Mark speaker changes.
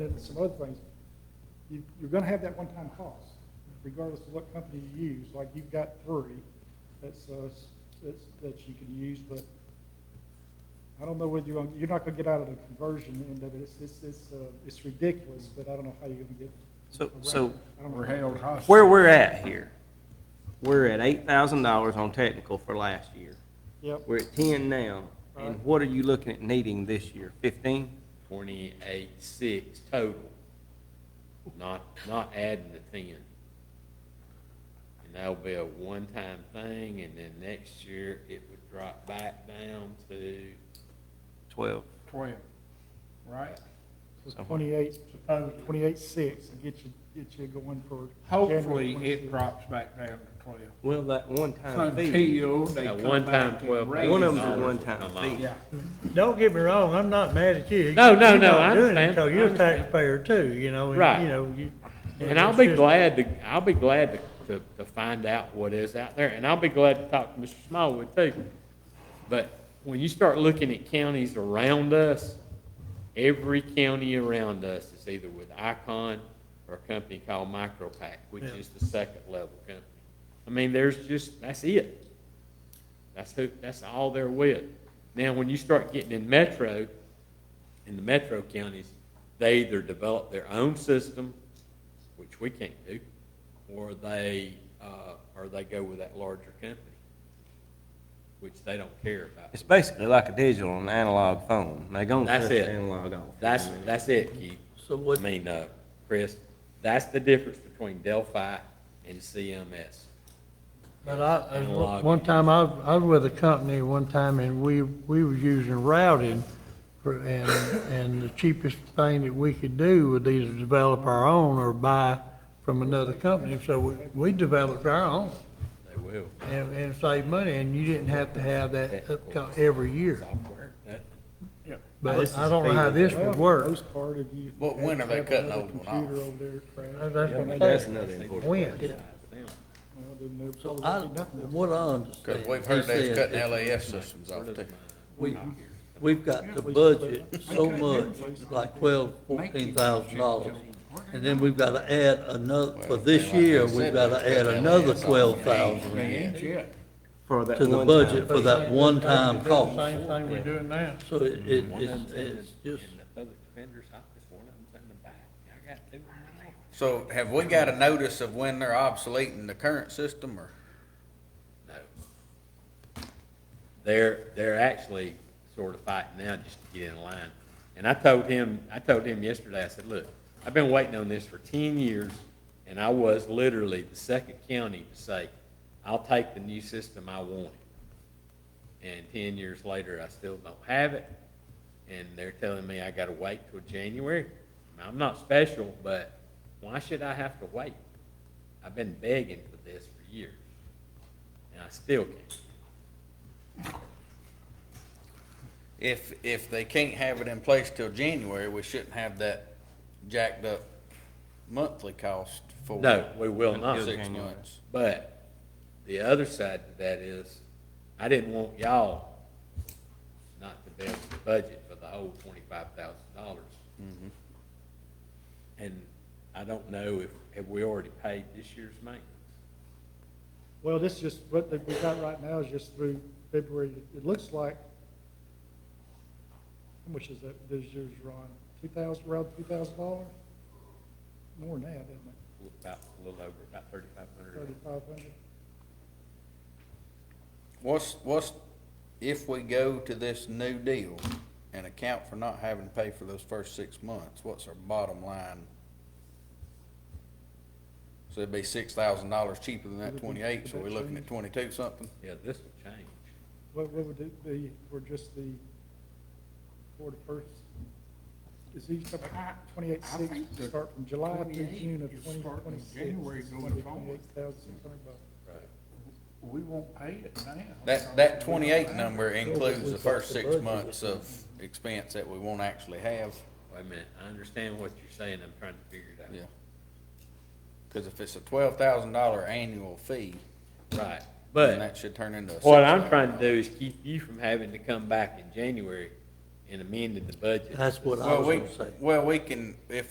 Speaker 1: and some other things, you, you're gonna have that one-time cost, regardless of what company you use, like you've got three that's, uh, s- that's, that you can use, but I don't know whether you're gonna, you're not gonna get out of the conversion end of it, it's, it's, it's, uh, it's ridiculous, but I don't know how you're gonna get.
Speaker 2: So-
Speaker 1: around
Speaker 2: so-
Speaker 1: it. I don't know.
Speaker 3: We're held hostage.
Speaker 2: Where we're at here, we're at eight thousand dollars on technical for last year.
Speaker 1: Yep,
Speaker 2: We're at ten now, and
Speaker 1: Right.
Speaker 2: what are you looking at needing this year, fifteen?
Speaker 4: twenty-eight, six total, not, not adding the ten. And that'll be a one-time thing, and then next year it would drop back down to,
Speaker 2: Twelve.
Speaker 3: Twelve, right?
Speaker 1: it's twenty-eight, uh, twenty-eight six, and get you, get you going for. January
Speaker 3: Hopefully,
Speaker 1: 26.
Speaker 3: it drops back down to twelve.
Speaker 2: Well, that one-time fee,
Speaker 3: Until they
Speaker 4: at
Speaker 3: come
Speaker 4: one time
Speaker 3: back
Speaker 4: twelve.
Speaker 3: and raise.
Speaker 2: One of
Speaker 3: it.
Speaker 2: them's a
Speaker 4: dollars will
Speaker 2: one-time
Speaker 4: come
Speaker 2: fee.
Speaker 4: out.
Speaker 3: Yeah,
Speaker 5: Don't get me wrong, I'm not mad at you.
Speaker 4: No, no,
Speaker 5: You're
Speaker 4: no,
Speaker 5: not
Speaker 4: I
Speaker 5: doing it
Speaker 4: understand.
Speaker 5: because
Speaker 4: I
Speaker 5: you're a
Speaker 4: understand.
Speaker 5: taxpayer too, you know,
Speaker 4: Right.
Speaker 5: and, you know, you.
Speaker 4: And I'll
Speaker 5: it's
Speaker 4: be
Speaker 5: just-
Speaker 4: glad to, I'll be glad to, to, to find out what is out there, and I'll be glad to talk to Mr. Smallwood too. But when you start looking at counties around us, every county around us is either with Icon or a company called MicroPack, which
Speaker 5: Yeah.
Speaker 4: is the second level company. I mean, there's just, that's it. That's who, that's all they're with. Now, when you start getting in metro, in the metro counties, they either develop their own system, which we can't do, or they, uh, or they go with that larger company, which they don't care about.
Speaker 2: it's basically like a digital and analog phone, they gonna
Speaker 4: That's
Speaker 2: cut the
Speaker 4: it.
Speaker 2: analog off.
Speaker 4: That's, that's it, Keith.
Speaker 5: So what-
Speaker 4: I mean, uh, Chris, that's the difference between Delphi and CMS.
Speaker 5: But I,
Speaker 4: And
Speaker 5: I-
Speaker 4: log.
Speaker 5: one time, I, was- I was with a company one time, and we, we was using routing, for- and, and the cheapest thing that we could do would either develop our own or buy from another company, so we, we developed our own
Speaker 4: They will.
Speaker 5: and, and saved money, and you didn't have to have that up every year.
Speaker 4: Software. that-
Speaker 3: yeah.
Speaker 5: But I don't know how this
Speaker 1: Well,
Speaker 5: would
Speaker 1: for
Speaker 5: work.
Speaker 1: the most part, if you.
Speaker 6: But when are they
Speaker 1: have
Speaker 6: cutting
Speaker 1: another
Speaker 6: those one off?
Speaker 1: Computer over there.
Speaker 5: Uh,
Speaker 1: crap,
Speaker 5: that's
Speaker 2: Yeah,
Speaker 5: what I'm
Speaker 2: That's
Speaker 5: saying.
Speaker 2: another important.
Speaker 5: When?
Speaker 1: well, then they'll
Speaker 7: So
Speaker 1: probably
Speaker 7: I,
Speaker 1: do nothing.
Speaker 7: what I understand.
Speaker 6: Because we've heard
Speaker 7: you
Speaker 6: they're
Speaker 7: said
Speaker 6: cutting
Speaker 7: that
Speaker 6: LAS systems off too.
Speaker 7: We, we've got the budget so much, like twelve, fourteen thousand dollars. And then we've gotta add another, for this year, we've gotta add another twelve thousand
Speaker 3: That's it.
Speaker 2: For that
Speaker 7: to the
Speaker 2: one-time
Speaker 7: budget
Speaker 2: fee.
Speaker 7: for that one-time cost.
Speaker 5: Same thing we're doing now.
Speaker 7: So it, it, it's, it's just,
Speaker 4: In the public defender's office, one of them's in the back. I got two. in my hand.
Speaker 6: So have we got a notice of when they're obsoleting the current system or?
Speaker 4: No. They're, they're actually sort of fighting now just to get in line. And I told him, I told him yesterday, I said, look, I've been waiting on this for ten years, and I was literally the second county to say, I'll take the new system, I want it. And ten years later, I still don't have it, and they're telling me I gotta wait till January. I'm not special, but why should I have to wait? I've been begging for this for years, and I still can't.
Speaker 6: If, if they can't have it in place till January, we shouldn't have that jacked up monthly cost for.
Speaker 4: No, we will not.
Speaker 6: Six months.
Speaker 4: But the other side to that is, I didn't want y'all not to be able to budget for the whole twenty-five thousand dollars. And I don't know if, have we already paid this year's maintenance?
Speaker 1: Well, this is just, what that we got right now is just through February, it looks like, how much is that, this year's Ron, two thousand, around two thousand dollars? More than that, isn't it,
Speaker 4: About, a little over, about thirty-five hundred.
Speaker 1: thirty-five hundred?
Speaker 6: What's, what's, if we go to this new deal and account for not having to pay for those first six months, what's our bottom line? So it'd be six thousand dollars cheaper than that twenty-eight, so we're looking at twenty-two something?
Speaker 4: Yeah, this will change.
Speaker 1: What, what would it be for just the, for the first, is each twenty-eight
Speaker 3: I
Speaker 1: six,
Speaker 3: think the
Speaker 1: start from July to
Speaker 3: 28
Speaker 1: June of
Speaker 3: is
Speaker 1: twenty
Speaker 3: starting
Speaker 1: twenty-six?
Speaker 3: January going forward.
Speaker 1: Twenty-eight thousand six hundred bucks.
Speaker 3: We won't pay it now.
Speaker 6: That, that twenty-eight number includes the first six months of expense that we won't actually have,
Speaker 4: Wait a minute, I understand what you're saying, I'm trying to figure it out.
Speaker 6: yeah. Cause if it's a twelve thousand dollar annual fee,
Speaker 4: Right, but.
Speaker 6: then that should turn into a.
Speaker 4: What I'm
Speaker 6: $6,000.
Speaker 4: trying to do is keep you from having to come back in January and amended the budget.
Speaker 7: That's what I
Speaker 6: Well,
Speaker 7: was
Speaker 6: we,
Speaker 7: gonna say.
Speaker 6: well, we can, if we